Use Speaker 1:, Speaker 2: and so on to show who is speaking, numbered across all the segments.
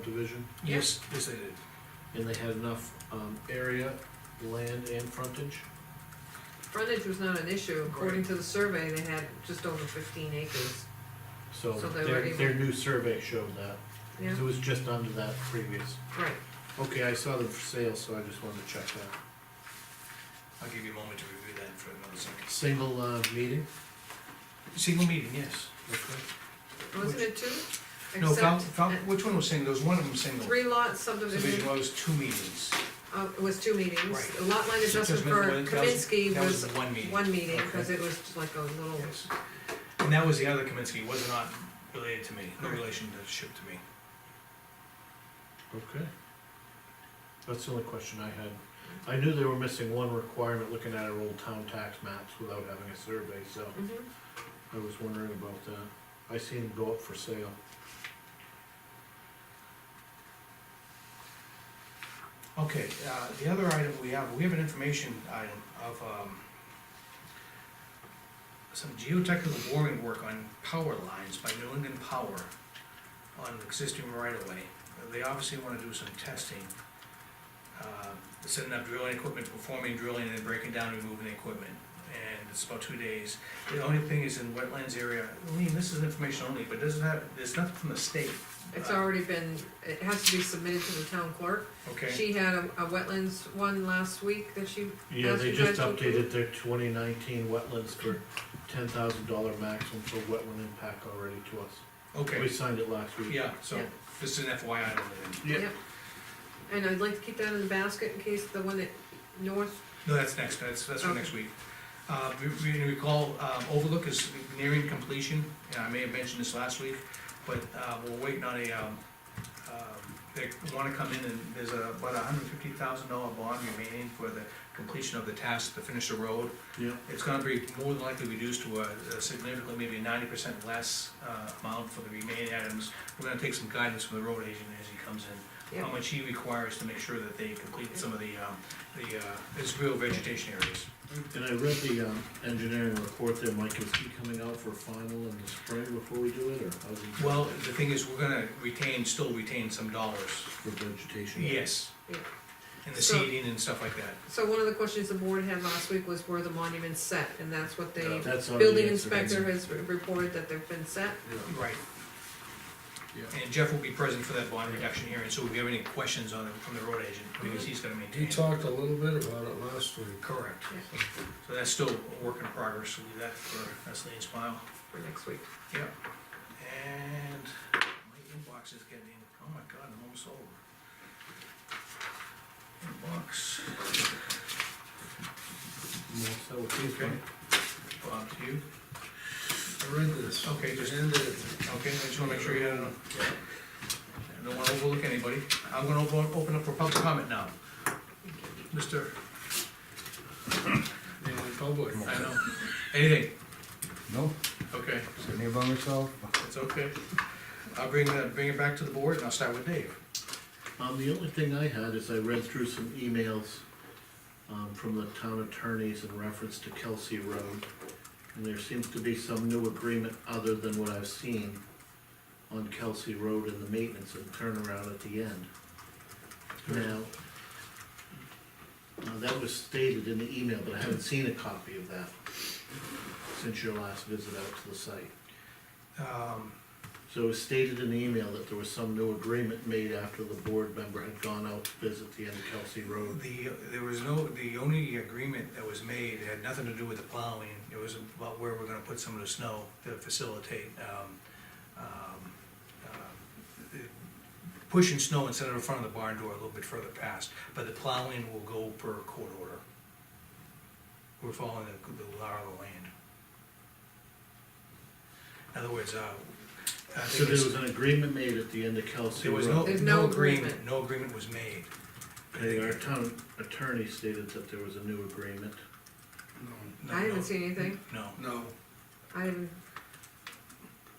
Speaker 1: subdivision?
Speaker 2: Yes, yes, I did.
Speaker 1: And they had enough, um, area, land and frontage?
Speaker 3: Frontage was not an issue, according to the survey, they had just over fifteen acres,
Speaker 1: So
Speaker 3: So they were
Speaker 1: their,
Speaker 3: able-
Speaker 1: their new survey showed that,
Speaker 3: yeah,
Speaker 1: 'cause it was just under that previous.
Speaker 3: right.
Speaker 1: Okay, I saw them for sale, so I just wanted to check that.
Speaker 2: I'll give you a moment to review that for another second.
Speaker 1: Single, uh, meeting?
Speaker 2: Single meeting, yes.
Speaker 1: Okay.
Speaker 3: Wasn't it two?
Speaker 2: No, Val,
Speaker 3: Except
Speaker 2: Val, which one was single? There was one of them single.
Speaker 3: Three lot
Speaker 2: Subdivision
Speaker 3: subdivision,
Speaker 2: was two meetings.
Speaker 3: uh, it was two meetings,
Speaker 2: Right.
Speaker 3: The lot line adjustment
Speaker 2: Adjustment
Speaker 3: for
Speaker 2: was- that was-
Speaker 3: Kaminsky
Speaker 2: That was
Speaker 3: was
Speaker 2: one meeting.
Speaker 3: one meeting, cause
Speaker 2: Okay.
Speaker 3: it was like a little,
Speaker 2: Yes. And that was the other Kaminsky, was not related to me, no
Speaker 3: Right.
Speaker 2: relationship to me.
Speaker 1: Okay. That's the only question I had. I knew they were missing one requirement, looking at our old town tax maps without having a survey, so
Speaker 3: Mhm.
Speaker 1: I was wondering about that. I seen them go up for sale.
Speaker 2: Okay, uh, the other item we have, we have an information item of, um, some geotechnical boring work on power lines by New England Power on an existing right of way. They obviously wanna do some testing. Uh, setting up drilling equipment, performing drilling and then breaking down, removing the equipment. And it's about two days. The only thing is in wetlands area, Lean, this is information only, but doesn't have, there's nothing from the state.
Speaker 3: it's
Speaker 2: Uh,
Speaker 3: already been, it has to be submitted to the town clerk.
Speaker 2: Okay.
Speaker 3: She had a, a wetlands one last week that she,
Speaker 1: Yeah, they
Speaker 3: Ask you
Speaker 1: just
Speaker 3: guys to approve.
Speaker 1: updated their twenty nineteen wetlands for ten thousand dollar maximum for wetland impact already to us.
Speaker 2: Okay.
Speaker 1: We signed it last week.
Speaker 2: Yeah, so,
Speaker 3: Yeah.
Speaker 2: this is an FYI, item then.
Speaker 3: Yep. and I'd like to keep that in the basket in case the one that north,
Speaker 2: no, that's next, that's, that's for
Speaker 3: Okay.
Speaker 2: next week. Uh, we, we recall, um, Overlook is nearing completion, and I may have mentioned this last week, but, uh, we're waiting on a, um, um, they wanna come in and there's a, about a hundred fifty thousand dollar bond remaining for the completion of the task to finish the road.
Speaker 1: Yeah.
Speaker 2: It's gonna be more than likely reduced to a a significantly, maybe ninety percent less uh, amount for the remaining items. We're gonna take some guidance from the road agent as he comes in, how
Speaker 3: Yeah.
Speaker 2: much he requires to make sure that they complete some of the, um, the, uh, his real vegetation areas.
Speaker 1: And I read the, um, engineering report there, Mike, is he coming out for final in the spring before we do it, or how's he?
Speaker 2: Well, the thing is, we're gonna retain, still retain some dollars.
Speaker 1: For vegetation?
Speaker 2: Yes.
Speaker 3: Yeah.
Speaker 2: And the
Speaker 3: So-
Speaker 2: seeding and stuff like that.
Speaker 3: so one of the questions the board had last week was were the monuments set, and that's what they
Speaker 1: That's already
Speaker 3: Building
Speaker 1: answered.
Speaker 3: inspector has re- reported that they've been set,
Speaker 1: Yeah.
Speaker 2: Right.
Speaker 1: Yeah.
Speaker 2: And Jeff will be present for that bond reduction hearing, so if you have any questions on, from the road agent, because he's gonna
Speaker 4: He
Speaker 2: maintain.
Speaker 4: talked a little bit about it last week.
Speaker 2: Correct. So that's still a work in progress, we'll leave that for, that's Lean's file.
Speaker 3: for next week.
Speaker 2: Yeah. And my inbox is getting, oh my god, I'm almost over. Inbox,
Speaker 1: Well, So with these,
Speaker 2: okay. Bob, to you.
Speaker 4: I read this.
Speaker 2: Okay, just
Speaker 4: Ended it.
Speaker 2: Okay, I just wanna make sure you had enough. I don't wanna overlook anybody. I'm gonna open, open up for public comment now. Mister,
Speaker 4: in the public.
Speaker 2: I know, anything?
Speaker 5: No,
Speaker 2: Okay,
Speaker 5: sitting here by myself.
Speaker 2: it's okay. I'll bring, that- bring it back to the board and I'll start with Dave.
Speaker 1: um, the only thing I had is I read through some emails, um, from the town attorneys in reference to Kelsey Road. And there seems to be some new agreement other than what I've seen on Kelsey Road and the maintenance and turnaround at the end. Now, uh, that was stated in the email, but I haven't seen a copy of that since your last visit out to the site.
Speaker 2: Um,
Speaker 1: So it was stated in the email that there was some new agreement made after the board member had gone out to visit the end of Kelsey Road.
Speaker 2: The, there was no, the only agreement that was made had nothing to do with the plowing, it was about where we're gonna put some of the snow to facilitate, um, um, uh, pushing snow instead of in front of the barn door a little bit further past, but the plowing will go per court order. We're following the, the law of the land. In other words, uh. I think
Speaker 1: So there
Speaker 2: it's-
Speaker 1: was an agreement made at the end of Kelsey
Speaker 2: There was no,
Speaker 1: Road.
Speaker 3: There's
Speaker 2: no
Speaker 3: no
Speaker 2: agreement,
Speaker 3: agreement.
Speaker 2: no agreement was made.
Speaker 1: And our town attorney stated that there was a new agreement.
Speaker 2: No,
Speaker 3: I
Speaker 2: no,
Speaker 3: haven't seen anything,
Speaker 2: No.
Speaker 4: No,
Speaker 3: I haven't,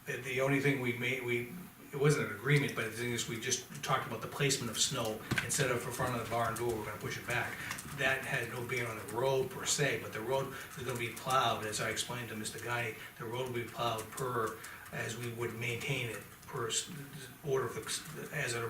Speaker 2: The, the only thing we made, we, it wasn't an agreement, but the thing is, we just talked about the placement of snow, instead of in front of the barn door, we're gonna push it back. That had no bearing on the road per se, but the road is gonna be plowed, as I explained to Mr. Guy, the road will be plowed per, as we would maintain it, per s- order of, the- as an